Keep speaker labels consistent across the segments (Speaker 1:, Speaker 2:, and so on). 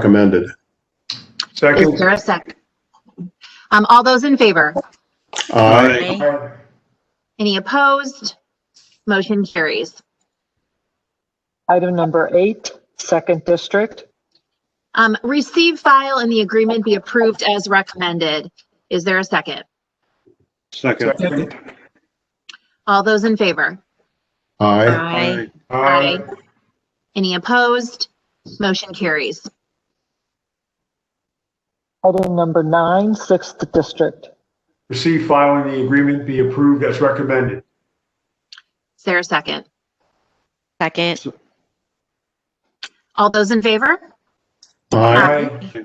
Speaker 1: recommended.
Speaker 2: Is
Speaker 3: Second.
Speaker 2: there a second? Um, all those in favor?
Speaker 1: Aye.
Speaker 2: Any opposed? Motion carries.
Speaker 4: Item number eight, second district.
Speaker 2: Um, receive file and the agreement be approved as recommended. Is there a second?
Speaker 3: Second.
Speaker 2: All those in favor?
Speaker 1: Aye.
Speaker 2: Aye. Aye. Any opposed? Motion carries.
Speaker 4: Item number nine, sixth district.
Speaker 3: Receive, file, and the agreement be approved as recommended.
Speaker 2: Is there a second?
Speaker 5: Second,
Speaker 2: All those in favor?
Speaker 1: Aye.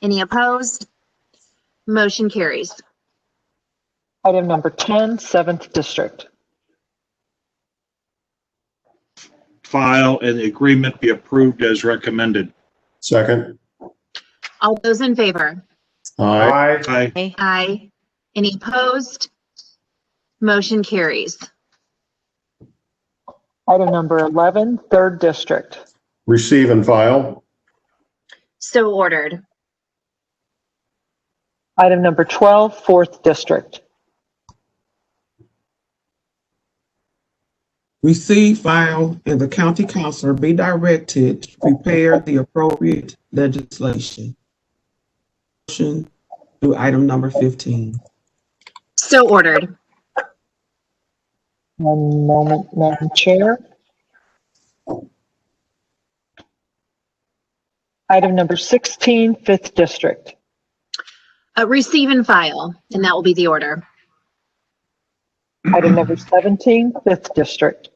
Speaker 2: Any opposed? Motion carries.
Speaker 4: Item number 10, seventh district.
Speaker 6: file and the agreement be approved as recommended.
Speaker 1: Second.
Speaker 2: All those in favor?
Speaker 1: Aye.
Speaker 3: Aye.
Speaker 6: Aye.
Speaker 5: aye,
Speaker 2: Aye. Any opposed? Motion carries.
Speaker 4: Item number 11, third district.
Speaker 1: Receive and file.
Speaker 2: So ordered.
Speaker 4: Item number 12, fourth district.
Speaker 7: Receive, file, and the county counselor be directed to prepare the appropriate legislation. Motion to item number fifteen.
Speaker 2: So ordered.
Speaker 4: One moment, Madam Chair. Item number 16, fifth district.
Speaker 2: Uh, receive and file, and that will be the order.
Speaker 4: Item number 17, fifth district.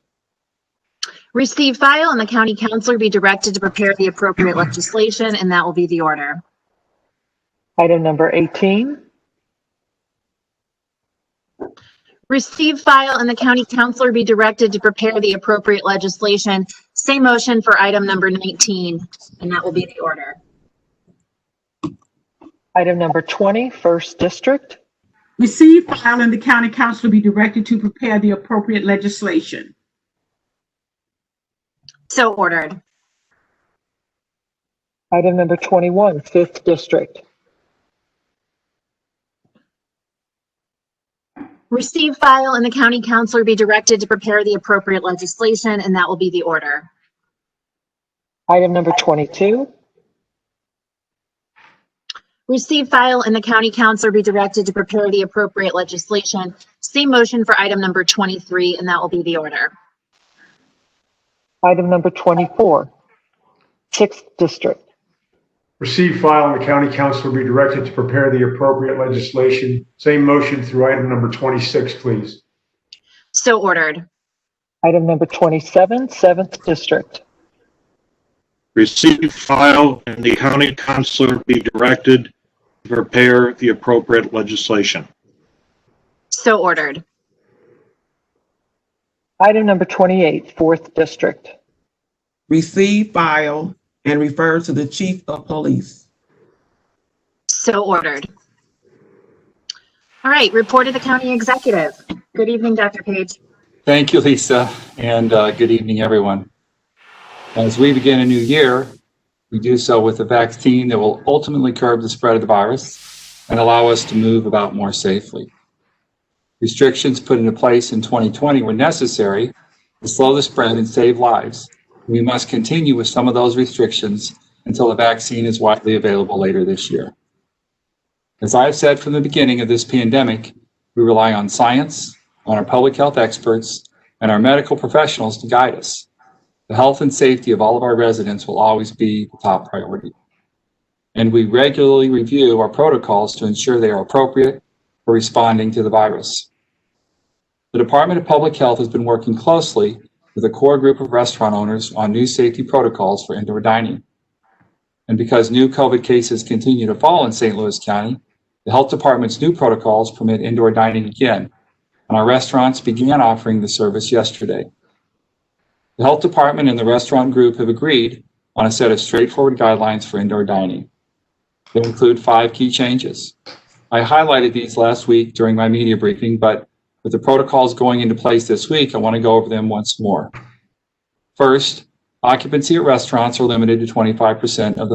Speaker 2: Receive, file, and the county counselor be directed to prepare the appropriate legislation, and that will be the order.
Speaker 4: Item number 18,
Speaker 2: Receive, file, and the county counselor be directed to prepare the appropriate legislation. Same motion for item number 19, and that will be the order.
Speaker 4: item number 20, first district.
Speaker 8: Receive, file, and the county council be directed to prepare the appropriate legislation.
Speaker 2: So ordered.
Speaker 4: Item number 21, fifth district.
Speaker 2: Receive, file, and the county counselor be directed to prepare the appropriate legislation, and that will be the order.
Speaker 4: Item number 22,
Speaker 2: Receive, file, and the county counselor be directed to prepare the appropriate legislation. Same motion for item number 23, and that will be the order.
Speaker 4: item number 24, sixth district.
Speaker 3: Receive, file, and the county council be directed to prepare the appropriate legislation. Same motion through item number 26, please.
Speaker 2: So ordered.
Speaker 4: Item number 27, seventh district.
Speaker 6: Receive, file, and the county counselor be directed to prepare the appropriate legislation.
Speaker 2: So ordered.
Speaker 4: Item number 28, fourth district.
Speaker 7: Receive, file, and refer to the chief of police.
Speaker 2: So ordered. All right, report of the county executive. Good evening, Dr. Page.
Speaker 9: Thank you, Lisa, and uh, good evening, everyone. As we begin a new year, we do so with a vaccine that will ultimately curb the spread of the virus and allow us to move about more safely. Restrictions put into place in 2020 were necessary to slow the spread and save lives. We must continue with some of those restrictions until a vaccine is widely available later this year. As I've said from the beginning of this pandemic, we rely on science, on our public health experts, and our medical professionals to guide us. The health and safety of all of our residents will always be the top priority. And we regularly review our protocols to ensure they are appropriate for responding to the virus. The Department of Public Health has been working closely with a core group of restaurant owners on new safety protocols for indoor dining. And because new COVID cases continue to fall in St. Louis County, the health department's new protocols permit indoor dining again, and our restaurants began offering the service yesterday. The health department and the restaurant group have agreed on a set of straightforward guidelines for indoor dining. They include five key changes. I highlighted these last week during my media briefing, but with the protocols going into place this week, I want to go over them once more. First, occupancy at restaurants are limited to 25% of the